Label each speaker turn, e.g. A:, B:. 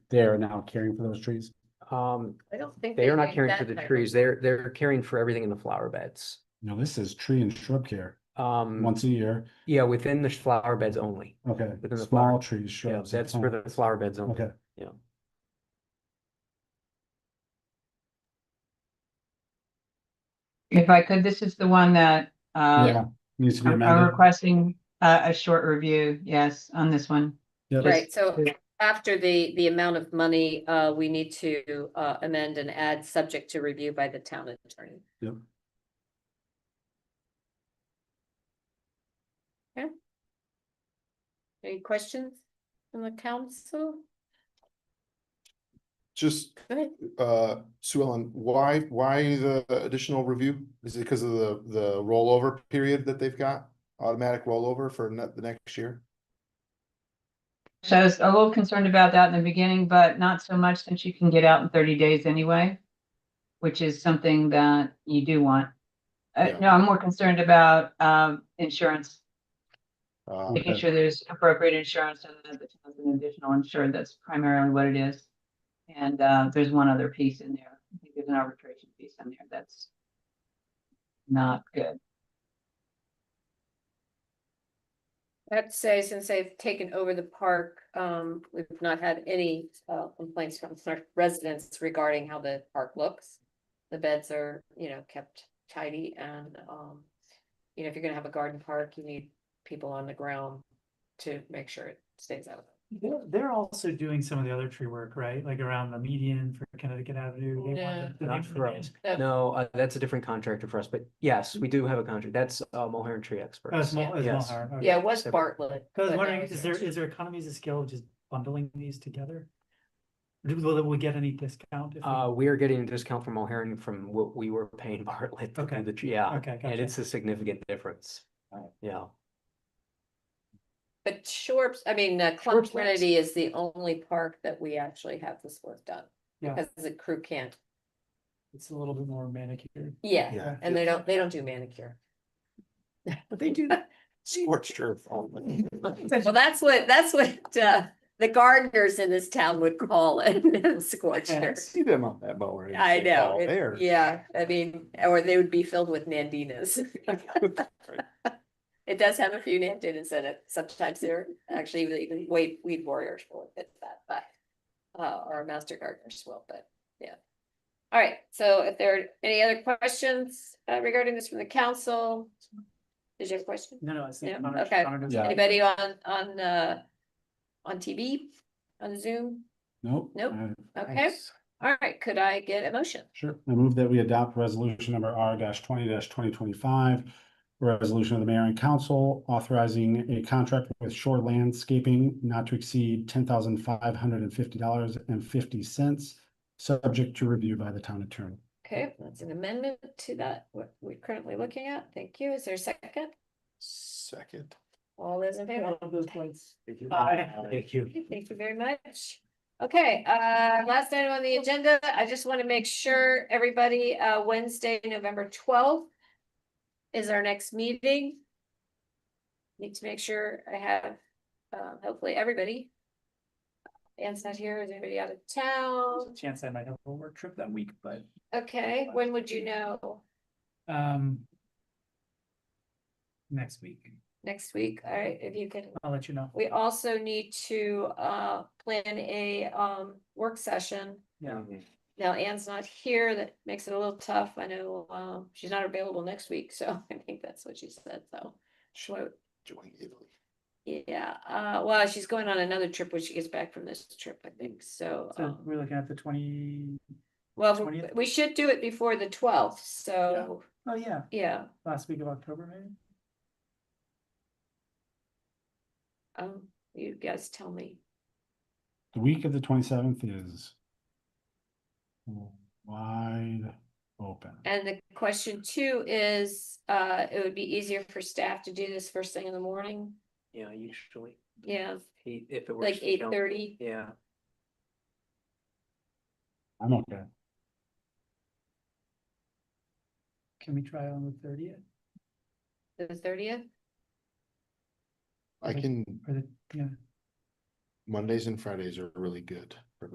A: they are now caring for those trees?
B: Um,
C: I don't think.
B: they are not
C: make
B: caring
C: that
B: for the
C: type of-
B: trees. They're, they're caring for everything in the flower beds.
A: No, this is tree and shrub care,
B: Um,
A: once a year,
B: yeah, within the flower beds only.
A: okay,
B: Within the flower.
A: small trees,
B: Yeah,
A: shrubs.
B: that's
A: oh,
B: for the flower beds only.
A: Okay,
D: If I could, this is the one that,
A: yeah,
D: uh,
A: needs to be
D: I'm I'm
A: amended.
D: requesting uh, a, a short review, yes, on this one.
A: Yep.
C: Right, so after the, the amount of money, uh, we need to, uh, amend and add subject to review by the town attorney.
A: Yep.
C: Okay. Any questions from the council?
E: Just,
C: Go ahead.
E: uh, Sue Ellen, why, why the additional review? Is it because of the, the rollover period that they've got? Automatic rollover for ne- the next year?
D: So I was a little concerned about that in the beginning, but not so much since you can get out in thirty days anyway, which is something that you do want. Uh,
E: Yeah.
D: no, I'm more concerned about, um, insurance,
E: Uh,
D: making
A: Okay.
D: sure there's appropriate insurance and that the town's an additional insured, that's primarily what it is. And, uh, there's one other piece in there, I think there's an arbitration piece in there that's not good.
C: I'd say since they've taken over the park, um, we've not had any, uh, complaints from our residents regarding how the park looks. The beds are, you know, kept tidy and, um, you know, if you're gonna have a garden park, you need people on the ground to make sure it stays out.
F: They're, they're also doing some of the other tree work, right? Like around the median for Connecticut Avenue. they
C: Yeah.
F: wanted to-
B: Not for us. No, uh, that's a different contractor for us, but yes, we do have a contract. That's, uh, Mulher and Tree
F: Oh,
B: Experts.
F: it's Mul- it's
B: Yes.
F: Mulhern, okay.
C: Yeah, it was Bartlett.
F: So I was
C: but
F: wondering,
C: now it's
F: is there,
C: Rich.
F: is there economies of scale of just bundling these together? Do- Will we get any discount? if we-
B: Uh, we are getting a discount from Mulher from what we were paying Bartlett. to do
F: Okay.
B: the tr- Yeah,
F: Okay,
B: and
F: gotcha.
B: it's a significant difference. Yeah.
C: But Shorps, I mean, uh, Club
B: Shorps Lakes.
C: Trinity is the only park that we actually have this work done.
F: Yeah.
C: Because the crew can't,
F: It's a little bit more manicured.
C: yeah,
E: Yeah.
C: and they don't, they don't do manicure.
B: But they do.
E: Scorched earth only.
C: Well, that's what, that's what, uh, the gardeners in this town would call it, scorched
E: I
C: earth.
E: See them on that mower. and
C: I
E: it's
C: know,
E: all
C: it-
E: There.
C: yeah, I mean, or they would be filled with nandinas. It does have a few nandinas in it, sometimes they're actually even weed, weed warriors will fit that, but, uh, or master gardeners will, but, yeah. All right, so if there are any other questions uh, regarding this from the council? Did you have a question?
F: No, no, I see.
C: Yeah, okay.
A: Yeah.
C: Anybody on, on, uh, on TV, on Zoom?
A: Nope.
C: Nope.
A: All right.
C: Okay, all right, could I get a motion?
A: Sure. I move that we adopt resolution number R twenty twenty twenty-five. Resolution of the mayor and council authorizing a contract with Shore Landscaping not to exceed ten thousand five hundred and fifty dollars and fifty cents. Subject to review by the town attorney.
C: Okay, that's an amendment to that, what we're currently looking at. Thank you. Is there a second?
E: Second.
C: All those in favor?
B: Thank you.
C: Okay, Thank you very much. Okay, uh, last item on the agenda, I just want to make sure everybody, uh, Wednesday, November twelfth is our next meeting. Need to make sure I have, uh, hopefully everybody. Anne's not here, is anybody out of town?
F: Chance I might have a work trip that week, but,
C: Okay, when would you know?
F: um, next week,
C: Next week, all right, if you can
F: I'll let you know.
C: We also need to uh plan a um work session.
F: Yeah.
C: Now Anne's not here, that makes it a little tough. I know um she's not available next week, so I think that's what she said, so. Sure.
E: Join Italy.
C: Yeah, uh well, she's going on another trip when she gets back from this trip, I think, so.
F: So
C: um,
F: we're looking at the twenty,
C: Well, we-
F: 20th?
C: we should do it before the twelfth, so,
F: oh yeah,
C: yeah,
F: last week of October maybe?
C: um you guys tell me.
A: The week of the twenty-seventh is wide open.
C: And the question two is, uh it would be easier for staff to do this first thing in the morning,
B: Yeah, usually.
C: yeah.
B: Eight- If it works.
C: Like
B: for the
C: eight
B: council.
C: thirty,
B: Yeah.
A: I'm okay.
F: Can we try on the thirtieth
C: the thirtieth?
E: I can,
F: or the, yeah?
E: Mondays and Fridays are really good for